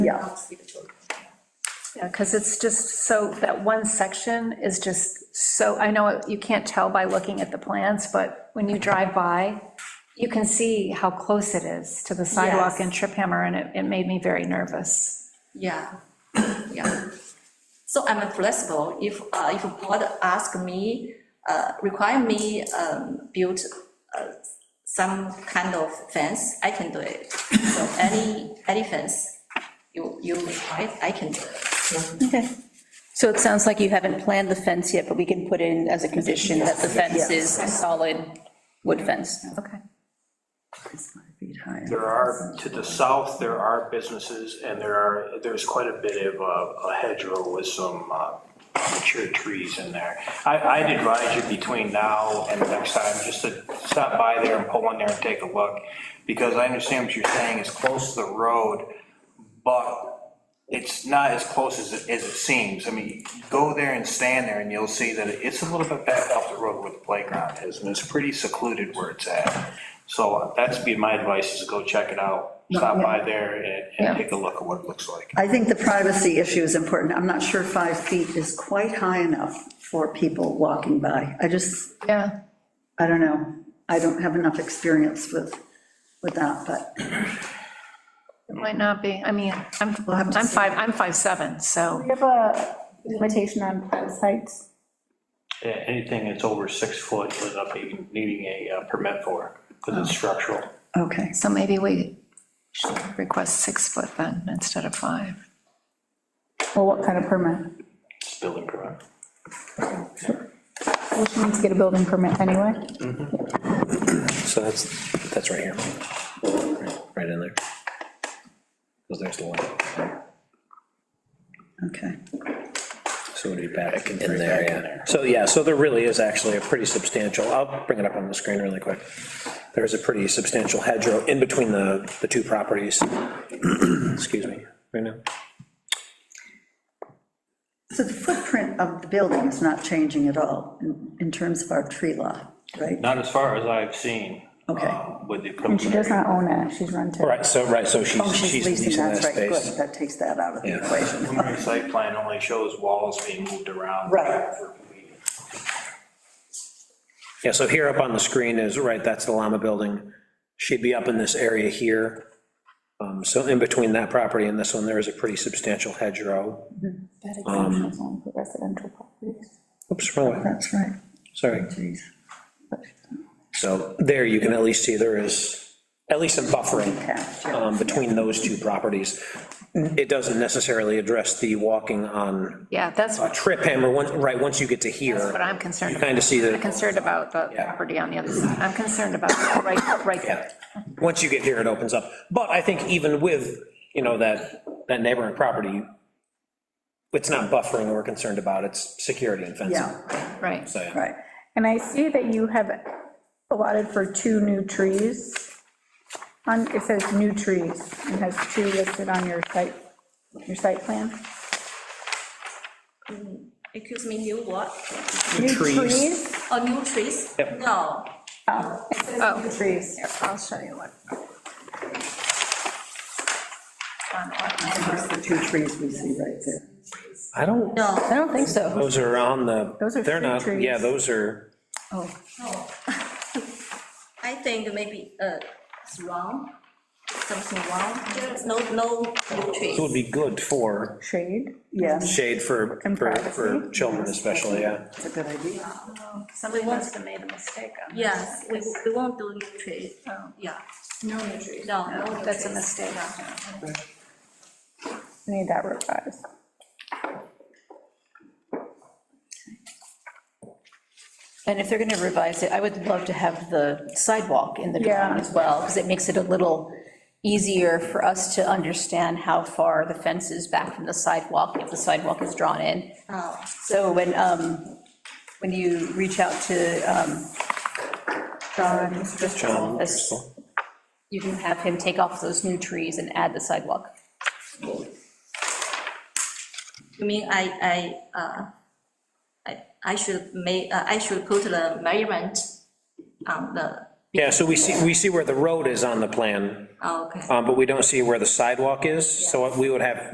Yeah. helps see the children. Yeah, because it's just so, that one section is just so, I know you can't tell by looking at the plans, but when you drive by, you can see how close it is to the sidewalk in Trip Hammer, and it, it made me very nervous. Yeah, yeah. So I'm flexible. If, uh, if board ask me, uh, require me, um, build, uh, some kind of fence, I can do it. So any, any fence you, you require, I can do it. Okay. So it sounds like you haven't planned the fence yet, but we can put in as a condition that the fence is a solid wood fence. Okay. There are, to the south, there are businesses, and there are, there's quite a bit of uh, a hedgerow with some uh, mature trees in there. I, I'd advise you between now and next time, just to stop by there and pull in there and take a look, because I understand what you're saying, it's close to the road, but it's not as close as it, as it seems. I mean, go there and stand there, and you'll see that it's a little bit back off the road where the playground is, and it's pretty secluded where it's at. So uh, that's be my advice, is go check it out, stop by there and, and take a look at what it looks like. I think the privacy issue is important. I'm not sure five feet is quite high enough for people walking by. I just, Yeah, I don't know. I don't have enough experience with, with that, but it might not be, I mean, I'm, We'll have to I'm see. five, I'm five seven, so, We have a limitation on fence heights. Yeah, anything that's over six foot ends up even needing a uh, permit for, because Oh. it's structural. okay. so maybe we should request six foot then, instead of five. Well, what kind of permit? It's building permit. We should need to get a building permit anyway. So that's, that's right here. Right in there. Because there's the one. Okay. So it'd be back in there, yeah. So, yeah, so there really is actually a pretty substantial, I'll bring it up on the screen really quick. There's a pretty substantial hedgerow in between the, the two properties. Excuse me, right now. So the footprint of the building is not changing at all in, in terms of our tree law, right? Not as far as I've seen. Okay. um, With the. And she does not own it, she's rented. Right, so, right, so Oh, she's, she's she's leasing, leasing that that's right, space. good. That takes that out of the Yeah. equation. Preliminary site plan only shows walls being moved around. Right. for- Yeah, so here up on the screen is, right, that's the Llama Building. She'd be up in this area here. Um, So in between that property and this one, there is a pretty substantial hedgerow. That exemption is only for residential properties. Oops, wrong way, That's right, sorry. geez. So there you can at least see there is at least some buffering Cash, yeah. um, between those two properties. It doesn't necessarily address the walking on Yeah, that's a what trip hammer, once, right, once you get to here, I'm concerned you about. kind of see I'm that, concerned about the Yeah. property on the other side. I'm concerned about, that right, right there. yeah. Once you get here, it opens up. But I think even with, you know, that, that neighboring property, it's not buffering we're concerned about, it's security and fencing. Yeah, Right. So, yeah. right. And I see that you have allotted for two new trees. On, it says new trees, and has two listed on your site, your site plan. Excuse me, new what? New trees. Oh, new trees? Yep. No, Oh, it says new trees. I'll show you what. There's the two trees we see right there. I don't, no. I don't think so. those are on the, Those are they're fruit not, yeah, trees. those are. No. I think maybe uh, it's wrong, something wrong. There's no, no no trees. So it would be good for Shade. Yes, shade for, And for, for privacy. children especially, yeah. that's a good idea. Somebody must have made a mistake on this. Yes, we, we won't do new trees, Oh. yeah. No new trees. No, no No, new that's a trees. mistake. I Need that revised. And if they're going to revise it, I would love to have the sidewalk in the drawing Yeah. as well, because it makes it a little easier for us to understand how far the fence is back from the sidewalk, if the sidewalk is drawn in. Oh, So when, um, when you reach out to, um, John, Driscoll, this- Um, you can have him take off those new trees and add the sidewalk. You mean I, I, uh, I, I should make, uh, I should put the measurement on the Yeah, so we see, we see where the road is on the plan, oh, Okay. um, but we don't see where the sidewalk is, so we would have,